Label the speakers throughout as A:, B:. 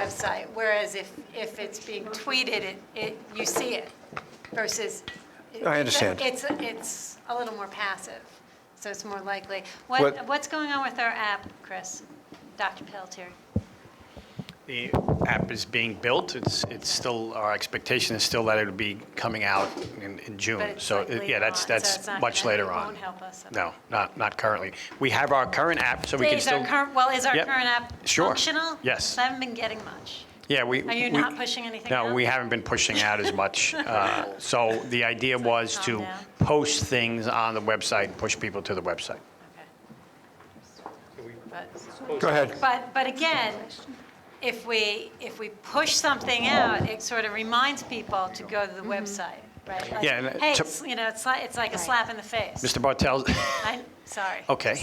A: website, whereas if, if it's being tweeted, it, it, you see it versus.
B: I understand.
A: It's, it's a little more passive, so it's more likely.
B: What-
A: What, what's going on with our app, Chris? Dr. Pelletier?
C: Oh, The app is being built. It's, it's still, our expectation is still that it would be coming out in, in
A: But
C: June.
A: it's
C: So,
A: like
C: it-
A: later
C: yeah, that's,
A: on, so it's
C: that's
A: not
C: much
A: gonna- it
C: later on.
A: won't help us.
C: No, not, not currently. We have our current app, so we can
A: Is
C: still.
A: our current, well, is our
C: Yep.
A: current app
C: Sure.
A: functional?
C: Yes.
A: I haven't been getting much.
C: Yeah, we.
A: Are you
C: we-
A: not pushing anything out?
C: No, we haven't been pushing out as much. uh, So the idea was
A: calm
C: to
A: down.
C: post things on the website and push people to the website.
A: Okay. But-
B: Go ahead.
A: But, but again, if we, if we push something out, it sort of reminds people to go to the website, right? Like,
C: Yeah, and, uh,
A: Hey,
C: to-
A: it's, you know, it's like, it's like a slap in the face.
C: Mr. Bartels,
A: I'm, sorry.
C: okay,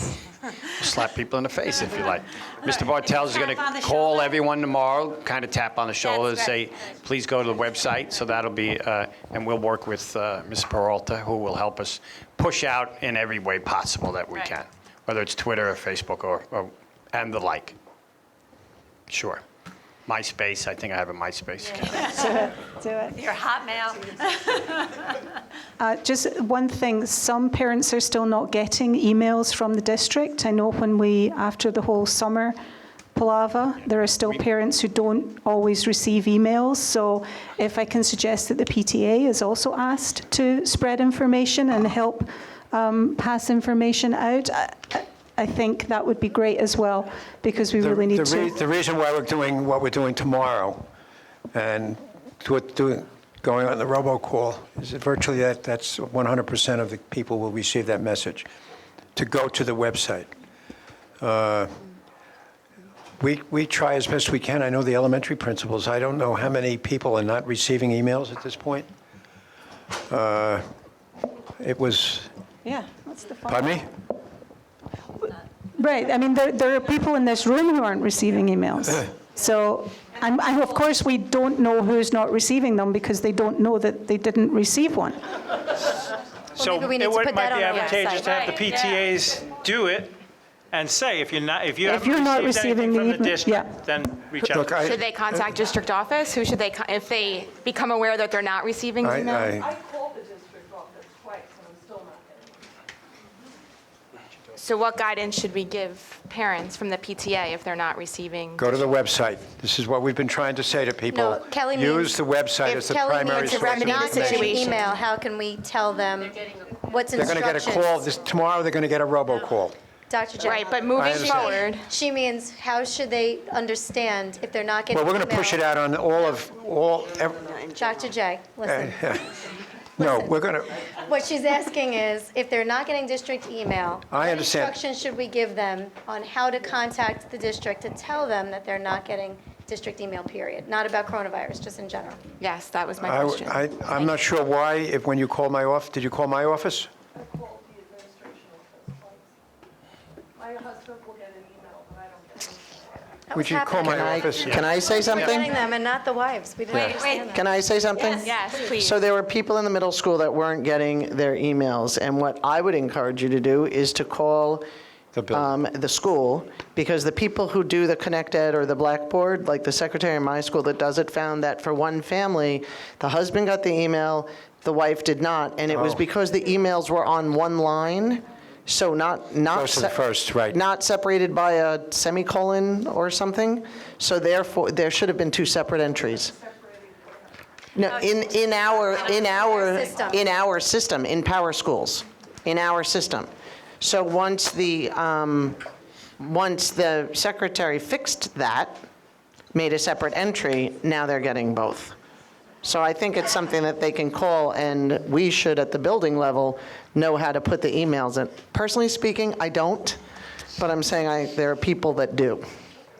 C: slap people in the face if you like. Mr.
A: Alright,
C: Bartels is
A: tap
C: going
A: on
C: to
A: the
C: call
A: shoulder?
C: everyone tomorrow, kind of tap on the shoulder and
A: That's
C: say,
A: right.
C: please go to the website. So that'll be, uh, and we'll work with uh, Ms. Peralta, who will help us push out in every way possible that we
A: Right.
C: can, whether it's Twitter or Facebook or, or- and the like. Sure. MySpace, I think I have a MySpace. account.
D: Do it.
A: Your Hotmail,
D: Uh, Just one thing, some parents are still not getting emails from the district. I know when we, after the whole summer palaver, there are still parents who don't always receive emails. So if I can suggest that the PTA is also asked to spread information and help um, pass information out, I- I- I think that would be great as well, because we
B: The-
D: really need
B: the rea- The
D: to.
B: reason why we're doing what we're doing tomorrow and what, doing, going on the robocall is that virtually that, that's 100% of the people will receive that message, to go to the website. Uh, We, we try as best we can. I know the elementary principals, I don't know how many people are not receiving emails at this point. Uh, It was,
D: Yeah, that's the fun.
B: pardon me?
D: Right, I mean, there, there are people in this room who aren't receiving emails. So, and, and of course, we don't know who's not receiving them because they don't know that they didn't receive one.
E: Well, maybe we need to put that on our
F: It would- might be advantageous to
E: website.
F: have the
A: Right, yeah.
F: PTAs do it and say, if you're not, if you
D: If you're not
F: haven't received
D: receiving
F: anything
D: the
F: from
D: email-
F: the
D: yeah.
F: district, then reach out.
B: Look, I-
E: Should they contact district office? Who should they, con- if they become aware that they're not receiving
B: I-
E: email?
B: I-
G: called the district office twice, and I'm still not getting
E: So what guidance should we give parents from the PTA if they're not receiving?
B: Go to the website. This is what we've been trying to say to people.
H: No, Kelly means.
B: Use the website
H: if
B: as the
H: Kelly
B: primary
H: means
B: source
H: if
B: of
H: they're not getting
B: information.
E: situation.
H: Email, how can we tell them what's
B: They're going to get a call,
H: instructions?
B: this- tomorrow they're going to get a robocall.
H: Dr. Jekyll.
E: Right, but moving
B: understand.
E: forward,
H: She means, how should they understand if they're not getting
B: Well,
H: email?
B: we're going to push it out on all of, all, ev-
H: Dr. J, listen.
B: no, we're going to,
H: What she's asking is, if they're not getting district email,
B: I understand.
H: what instructions should we give them on how to contact the district to tell them that they're not getting district email, period? Not about coronavirus, just in general.
E: yes, that was my question.
B: I, I- I'm not sure why, if when you called my off, did you call my office?
G: I called the administration office twice. My husband will get an email, but I don't get it.
H: That was
B: Would you call
H: happening.
B: my
I: Can I-
B: office?
I: Can I say
H: We're Getting
I: something?
H: them and not the wives. We didn't understand that.
I: Can I say something?
E: Yes, please.
I: So there were people in the middle school that weren't getting their emails, and what I would encourage you to do is to call
B: The building.
I: um, the school, because the people who do the Connect Ed or the Blackboard, like the secretary in my school that does it, found that for one family, the husband got the email, the wife did not, and it was
B: Oh.
I: because the emails were on one line, so not, not.
B: First and
I: se-
B: first, right.
I: Not separated by a semicolon or something, so therefore, there should have been two separate entries. No, in, in our, Uh, in our,
H: System.
I: in our system, in power schools, in our system. So once the, um, once the secretary fixed that, made a separate entry, now they're getting both. So I think it's something that they can call, and we should, at the building level, know how to put the emails in. Personally speaking, I don't, but I'm saying I, there are people that do.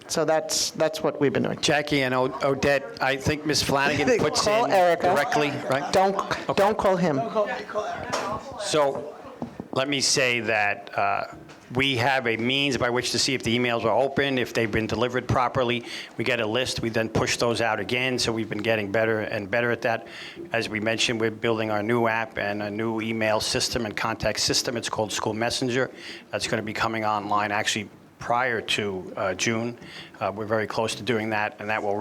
I: So that's, that's what we've been doing.
C: Jackie and O- Odette, I think Ms. Flanagan puts
I: Call
C: in
I: Erica.
C: directly, right?
I: Don't, don't call him.
C: So let me say that uh, we have a means by which to see if the emails are open, if they've been delivered properly. We get a list, we then push those out again, so we've been getting better and better at that. As we mentioned, we're building our new app and a new email system and contact system. It's called School Messenger. That's going to be coming online actually prior to uh, June. Uh, We're very close to doing that, and that will